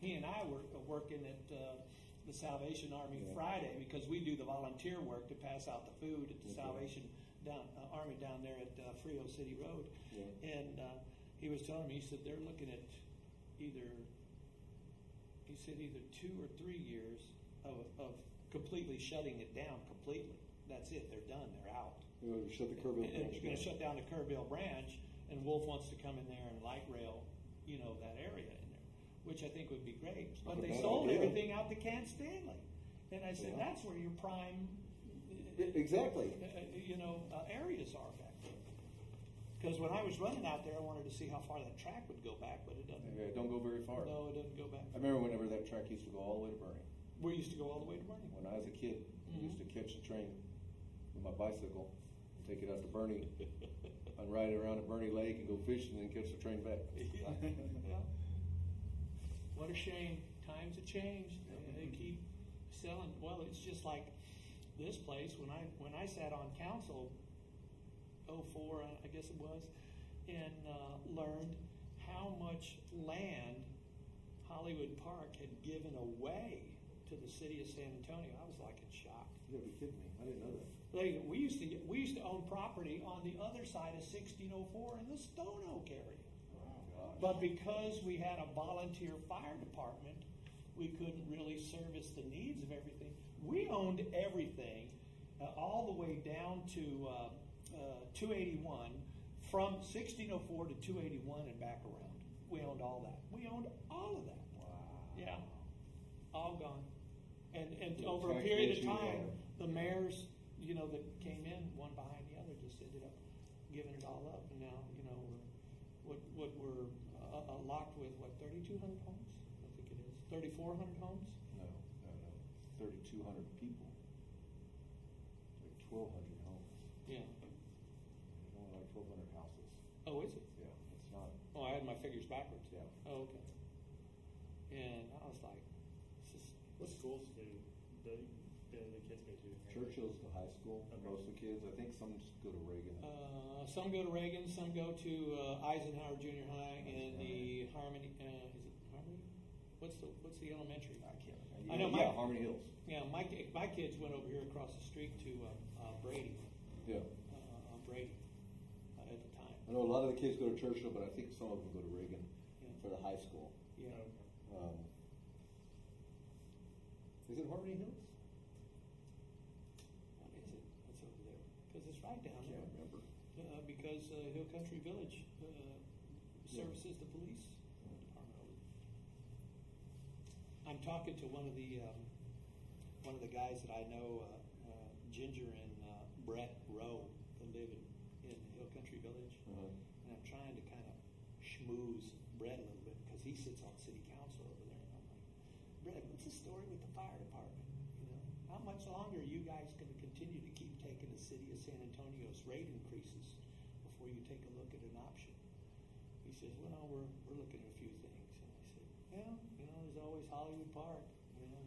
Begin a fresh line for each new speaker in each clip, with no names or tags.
he and I were working at uh, the Salvation Army
Yeah.
Friday because we do the volunteer work to pass out the food at the
Okay.
Salvation down, uh, Army down there at uh, Frio City Road.
Yeah.
And uh, he was telling me, he said they're looking at either, he said either two or three years of, of completely shutting it down completely. That's it. They're done. They're out.
You know, shut the curb.
And
and
it's
crash
gonna
down.
shut down the Kerrville branch, and Wolf wants to come in there and light rail, you know, that area in there, which I think would be great. But they
That's a
sold
good idea.
everything out to Cat Stanley. And I said,
Yeah.
that's where your prime, uh,
E- Exactly.
uh, uh, you know, uh, areas are back there. Because when I was running out there, I wanted to see how far that track would go back, but it doesn't.
Yeah, don't go very far.
No, it doesn't go back.
I remember whenever that track used to go all the way to Burning.
We used to go all the way to Burning.
When I was a kid, I used to
Mm-hmm.
catch the train with my bicycle, and take it out to Burning, and ride it around to Burning Lake and go fishing, and then catch the train back.
Yeah, yeah. What a shame. Times have changed. They they keep selling. Well, it's just like this place. When I when I sat on council, '04, I guess it was, and uh, learned how much land Hollywood Park had given away to the city of San Antonio. I was like in shock.
You gotta be kidding me. I didn't know that.
Like we used to get, we used to own property on the other side of 1604 in the Stone Oak area.
Gosh.
But because we had a volunteer fire department, we couldn't really service the needs of everything. We owned everything, uh, all the way down to, uh, uh, two eighty-one, from sixteen oh four to two eighty-one and back around. We owned all that. We owned all of that.
Wow.
Yeah, all gone. And, and
The
over a
tax
period of
base you
time,
had.
the mayors, you know, that came in, one behind the other, just ended up giving it all up. And now, you know, we're, what, what we're uh, uh, locked with, what, thirty-two hundred homes? I think it is, thirty-four hundred homes?
No, no, no. Thirty-two hundred people. Like twelve hundred homes.
Yeah.
There's only like twelve hundred houses.
Oh, is it?
Yeah, it's not,
Oh, I had my figures backwards.
yeah.
Oh, okay. And I was like, this is,
What schools do the, the, the kids go to?
Churchill's the high school,
Okay.
most of the kids. I think some just go to Reagan.
Uh, some go to Reagan, some go to uh, Eisenhower Junior High and the Harmony. Uh, is it Harmony? What's the What's the elementary? I can't.
Yeah,
I know
yeah,
my
Harmony Hills.
yeah my ki- my kids went over here across the street to uh, uh, Brady,
Yeah.
uh, uh, Brady uh, at the time.
I know a lot of the kids go to Churchill, but I think some of them go to Reagan
Yeah.
for the high school.
Yeah.
Oh,
Um, is it Harmony Hills?
What is it? What's over there? Because it's right
I
down
can't
there.
remember.
Uh, because uh, Hill Country Village uh, services the police department. over there. I'm talking to one of the um, one of the guys that I know, uh, uh, Ginger and uh, Brett Rowe, that live in, in Hill Country Village,
Uh-huh.
and I'm trying to kind of schmooze Brett a little bit because he sits on city council over there, and I'm like, Brett, what's the story with the fire department? You know, how much longer are you guys going to continue to keep taking the city of San Antonio's rate increases before you take a look at an option? He says, well, no, we're, we're looking at a few things, and I said, yeah, you know, there's always Hollywood Park, you know,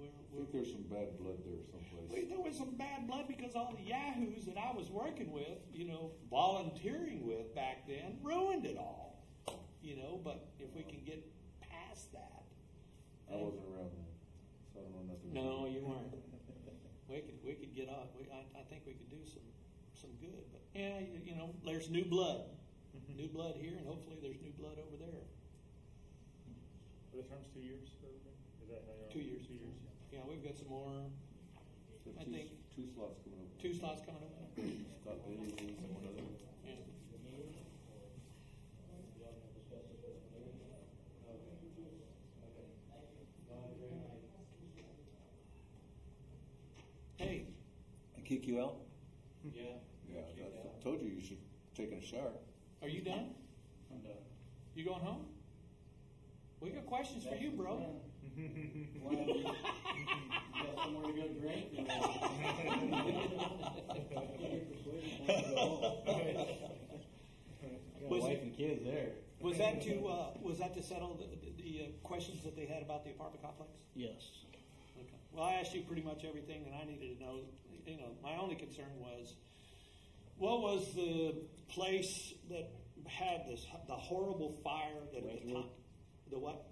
we're,
I
we're.
think there's some bad blood there someplace.
Well, there was some bad blood because all the yahoos that I was working with, you know, volunteering with back then, ruined it all. You know, but if we can get past that,
I wasn't around then, so I don't know nothing.
No,
about it.
you weren't. we could we could get off. We, I, I think we could do some some good. But yeah, you, you know, there's new blood, new blood here, and hopefully there's new blood over there.
Are the terms two years or everything? Is that how? y'all-
Two years.
Two years, yeah.
Yeah, we've got some more
There's
I
two,
think-
two slots coming up.
two slots coming up.
Scott Bailey's and one other.
Yeah. Hey,
And kick you out?
yeah,
Yeah, that's- I told you you should take a shower.
are you done?
I'm done.
You going home? We got questions for you, bro.
Why don't you, you got somewhere to go drink? or- Got
Was
wife
it-
and kids there.
Was that to, uh, was that to settle the, the, the uh, questions that they had about the apartment complex?
Yes.
Okay. Well, I asked you pretty much everything that I needed to know. You know, my only concern was, what was the place that had this the horrible fire that at the
Redwood.
time, the what?